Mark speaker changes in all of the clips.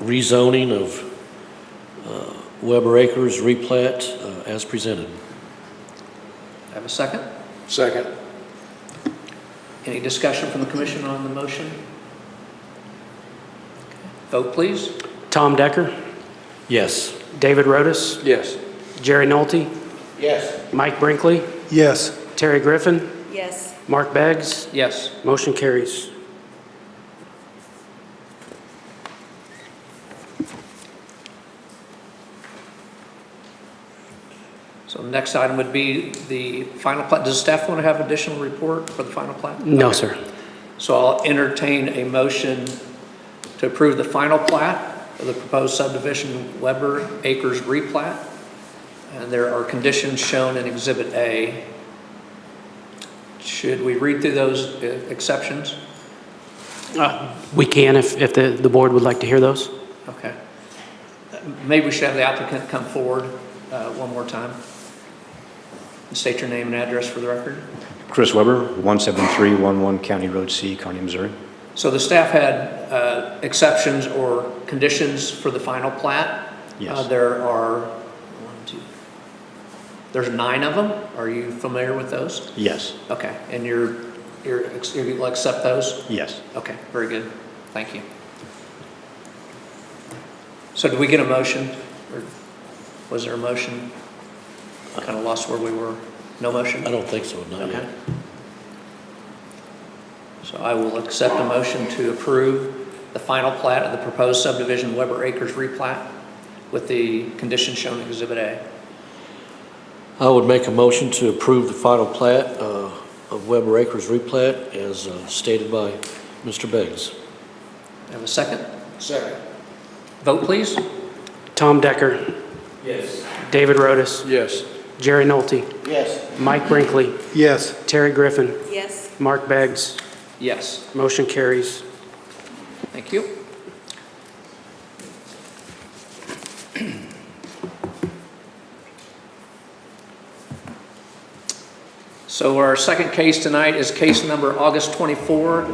Speaker 1: rezoning of uh, Weber Acres replat uh, as presented.
Speaker 2: I have a second.
Speaker 3: Second.
Speaker 2: Any discussion from the commission on the motion? Vote, please.
Speaker 4: Tom Decker,
Speaker 1: Yes.
Speaker 4: David Rotis,
Speaker 3: Yes.
Speaker 4: Jerry Nolte,
Speaker 3: Yes.
Speaker 4: Mike Brinkley,
Speaker 3: Yes.
Speaker 4: Terry Griffin,
Speaker 5: Yes,
Speaker 4: Mark Beggs.
Speaker 2: Yes.
Speaker 4: Motion carries.
Speaker 2: So the next item would be the final plat. Does staff want to have additional report for the final plat?
Speaker 4: No,
Speaker 2: Okay.
Speaker 4: sir.
Speaker 2: So I'll entertain a motion to approve the final plat of the proposed subdivision Weber Acres replat. And there are conditions shown in Exhibit A. Should we read through those uh, exceptions?
Speaker 4: Uh, We can if, if the, the board would like to hear those.
Speaker 2: Okay. Maybe we should have the applicant come forward uh, one more time. and State your name and address for the record.
Speaker 6: Chris Weber, 17311 County Road C, Kearney, Missouri.
Speaker 2: So the staff had uh, exceptions or conditions for the final plat?
Speaker 6: Yes.
Speaker 2: Uh, There are, one, two, there's nine of them. Are you familiar with those?
Speaker 6: Yes,
Speaker 2: Okay, and you're, you're, you'll accept those?
Speaker 6: yes.
Speaker 2: Okay, very good. Thank you. So did we get a motion? Or was there a motion? Kind of lost where we were. No motion?
Speaker 1: I don't think so, not
Speaker 2: Okay.
Speaker 1: yet.
Speaker 2: So I will accept a motion to approve the final plat of the proposed subdivision Weber Acres replat with the conditions shown in Exhibit A.
Speaker 1: I would make a motion to approve the final plat uh, of Weber Acres replat as uh, stated by Mr. Beggs.
Speaker 2: Have a second?
Speaker 3: Second.
Speaker 2: Vote, please.
Speaker 4: Tom Decker. Yes. David Rotis,
Speaker 3: Yes.
Speaker 4: Jerry Nolte,
Speaker 3: Yes.
Speaker 4: Mike Brinkley,
Speaker 3: Yes.
Speaker 4: Terry Griffin,
Speaker 5: yes.
Speaker 4: Mark Beggs.
Speaker 2: Yes,
Speaker 4: Motion carries.
Speaker 2: thank you. So our second case tonight is case number August 24-110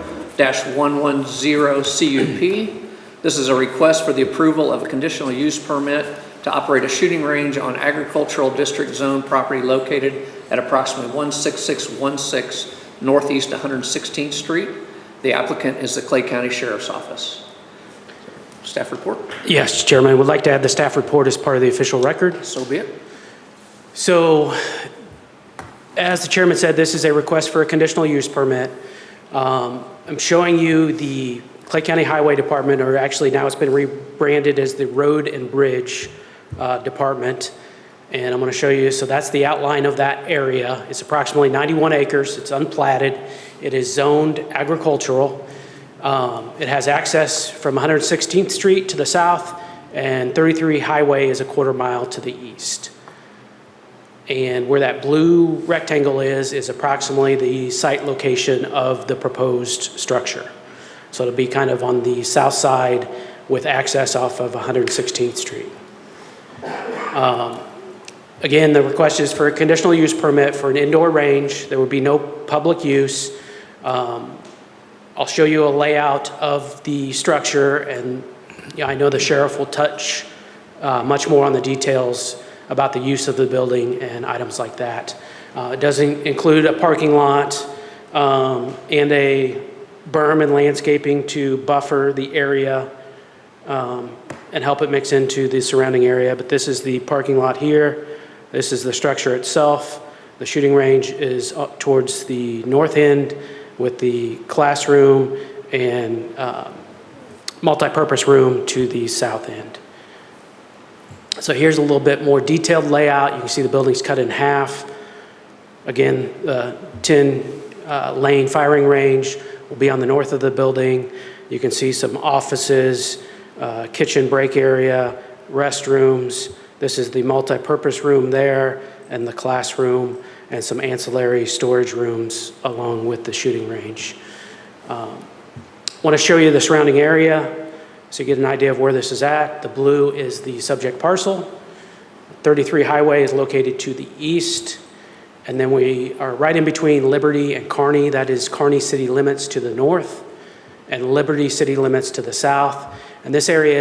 Speaker 2: CUP. This is a request for the approval of a conditional use permit to operate a shooting range on agricultural district zone property located at approximately 16616 Northeast 116th Street. The applicant is the Clay County Sheriff's Office. Staff report,
Speaker 4: Yes, Chairman, would like to add the staff report as part of the official record.
Speaker 2: so be it.
Speaker 4: So, as the chairman said, this is a request for a conditional use permit. Um, I'm showing you the Clay County Highway Department, or actually now it's been rebranded as the Road and Bridge uh, Department. And I'm going to show you, so that's the outline of that area. It's approximately 91 acres, it's unplatted, it is zoned agricultural. Um, It has access from 116th Street to the south, and 33 Highway is a quarter mile to the east. And where that blue rectangle is, is approximately the site location of the proposed structure. So it'll be kind of on the south side with access off of 116th Street. Um, Again, the request is for a conditional use permit for an indoor range. There would be no public use. Um, I'll show you a layout of the structure, and yeah, I know the sheriff will touch uh, much more on the details about the use of the building and items like that. Uh, It does in- include a parking lot um, and a berm and landscaping to buffer the area um, and help it mix into the surrounding area. But this is the parking lot here. This is the structure itself. The shooting range is up towards the north end with the classroom and um, multipurpose room to the south end. So here's a little bit more detailed layout. You can see the building's cut in half. Again, uh, the 10-lane firing range will be on the north of the building. You can see some offices, uh, kitchen break area, restrooms. This is the multipurpose room there and the classroom and some ancillary storage rooms along with the shooting range. Want to show you the surrounding area so you get an idea of where this is at. The blue is the subject parcel. 33 Highway is located to the east. And then we are right in between Liberty and Kearney. That is Kearney city limits to the north and Liberty city limits to the south. And this area